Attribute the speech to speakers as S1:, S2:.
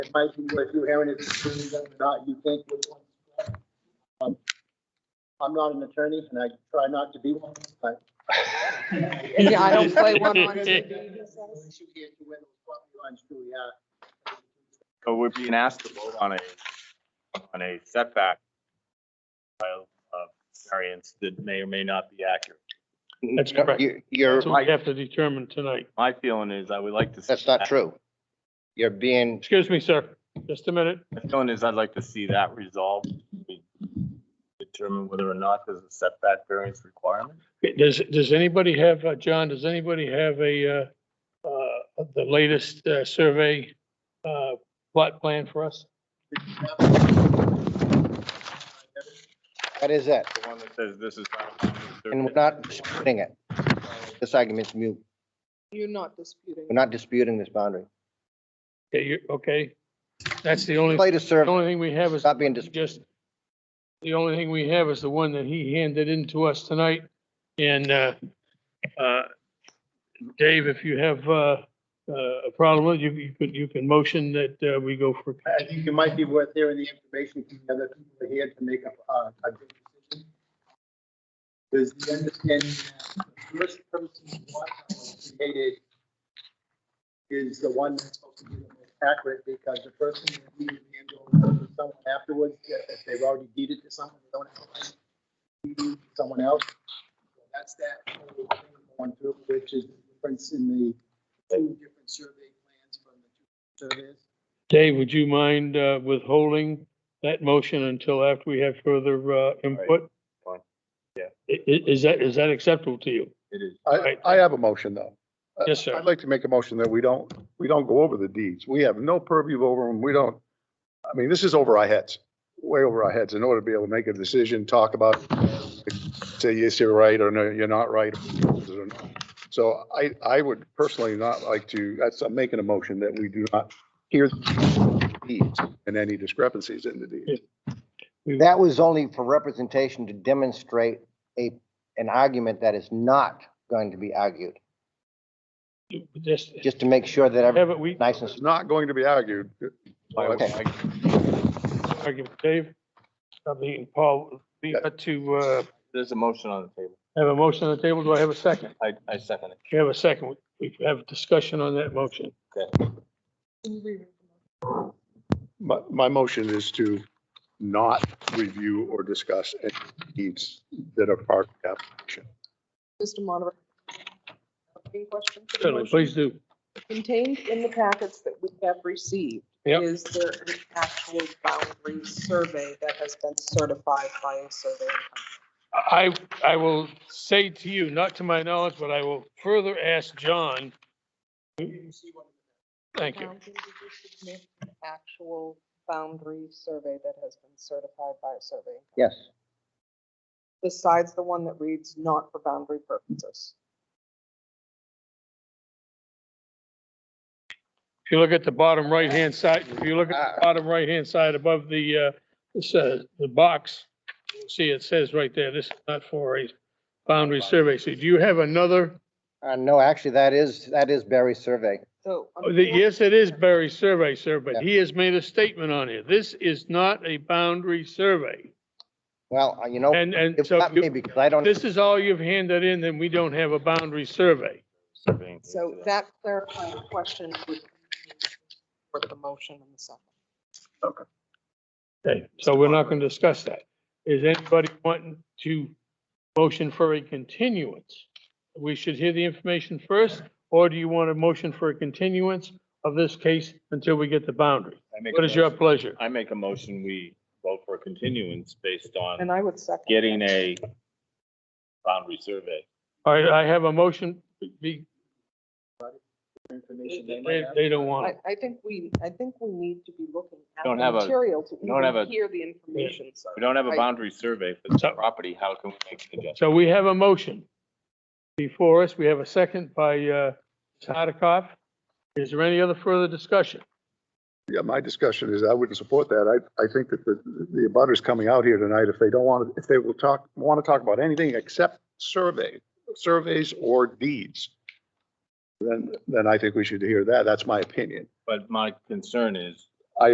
S1: It might be where you hearing it, it's true or not, you think. we're going to- Um, I'm not an attorney and I try not to be one, but.
S2: Yeah, I don't play one on TV.
S1: Well,
S3: So we're being asked to vote on a, on a setback file of variance that may or may not be accurate.
S4: That's correct.
S5: You- You're,
S4: That's what we have to determine tonight.
S3: My feeling is I would like to. see
S5: that's not
S3: that-
S5: true. You're being,
S4: Excuse me, sir, just a minute.
S3: My feeling is I'd like to see that resolved. We Determine whether or not there's a setback variance requirement.
S4: Does, does anybody have, uh, John, does anybody have a, uh, uh, the latest, uh, survey, uh, plot plan for us?
S5: that is it,
S3: The one that says this is.
S5: and we're not disputing it. This argument's mute.
S2: You're not disputing.
S5: We're not disputing this boundary.
S4: Okay, you, okay, that's the only,
S5: Play to
S4: the
S5: serve,
S4: only thing we have is
S5: not being disputed.
S4: just, the only thing we have is the one that he handed in to us tonight. And, uh, uh, Dave, if you have, uh, uh, a problem, with it, you, you could, you can motion that, uh, we go for.
S1: I think it might be worth hearing the information from the other people here to make a, uh, a good decision. There's the understanding that the first person who was created is the one that's supposed to be the most accurate because the person who deeded land over to someone afterwards, if they've already deeded to someone, they don't have a right to deed to someone else. That's that whole thing going through, which is the difference in the two different survey plans from the two surveys.
S4: Dave, would you mind uh, withholding that motion until after we have further uh, input?
S3: fine. Yeah.
S4: I- i- Is that, is that acceptable to you?
S3: It is.
S6: I,
S4: Right.
S6: I have a motion though. Uh,
S4: Yes, sir.
S6: I'd like to make a motion that we don't, we don't go over the deeds. We have no purview over them. We don't, I mean, this is over our heads, way over our heads in order to be able to make a decision, talk about, say, yes, you're right, or no, you're not right. or not. So I, I would personally not like to, that's, I'm making a motion that we do not hear the deeds and any discrepancies in the deeds.
S5: That was only for representation to demonstrate a, an argument that is not going to be argued,
S4: Just,
S5: just to make sure that everything's
S4: have it, we,
S5: nice and,
S6: It's not going to be argued.
S5: Okay.
S4: argue with Dave, I mean, Paul, we got to uh,
S3: There's a motion on the table.
S4: have a motion on the table. Do I have a second?
S3: I, I second it.
S4: Do you have a second? We have a discussion on that motion.
S6: My, my motion is to not review or discuss any deeds that are part of the application.
S2: Mr. Monitor. Any questions? for the
S4: Certainly,
S2: motion?
S4: please do.
S2: Contained in the packets that we have received.
S4: Yep.
S2: Is there an actual boundary survey that has been certified by a surveyor?
S4: I, I will say to you, not to my knowledge, but I will further ask John. Thank you.
S2: Boundary district map, Actual boundary survey that has been certified by a survey,
S5: yes.
S2: besides the one that reads not for boundary purposes.
S4: If you look at the bottom right-hand side, if you look at the bottom right-hand side above the, uh, this, uh, the box, you'll see it says right there, this is not for a boundary survey. So do you have another?
S5: Uh, no, actually, that is, that is Barry's survey.
S2: So.
S4: oh, the- Yes, it is Barry's survey, sir, but
S5: Yeah.
S4: he has made a statement on it. This is not a boundary survey.
S5: Well, uh, you know,
S4: And, and
S5: it's
S4: so
S5: not
S4: you-
S5: me because I don't,
S4: this is all you've handed in, then we don't have a boundary survey.
S2: So that clarifying question would be for the motion and the second.
S4: Okay, so we're not going to discuss that. Is anybody wanting to motion for a continuance? We should hear the information first, or do you want a motion for a continuance of this case until we get the boundary? What is your pleasure?
S3: I make a motion, we vote for a continuance based on
S2: And I would second.
S3: getting a boundary survey.
S4: All right, I have a motion. Be-
S1: Information they might
S4: They,
S1: have.
S4: they don't want
S2: I,
S4: it.
S2: I think we, I think we need to be looking at
S3: Don't have
S2: the
S3: a-
S2: material to
S3: don't have
S2: even
S3: a-
S2: hear the information. so-
S3: We don't have a
S2: Right.
S3: boundary survey for the
S4: So-
S3: property. How can we make an adjustment?
S4: So we have a motion before us. We have a second by, uh, Sadikoff. Is there any other further discussion?
S6: Yeah, my discussion is I wouldn't support that. I, I think that the, the abutters coming out here tonight, if they don't want to, if they will talk, want to talk about anything except survey, surveys or deeds, then, then I think we should hear that. That's my opinion.
S3: But my concern is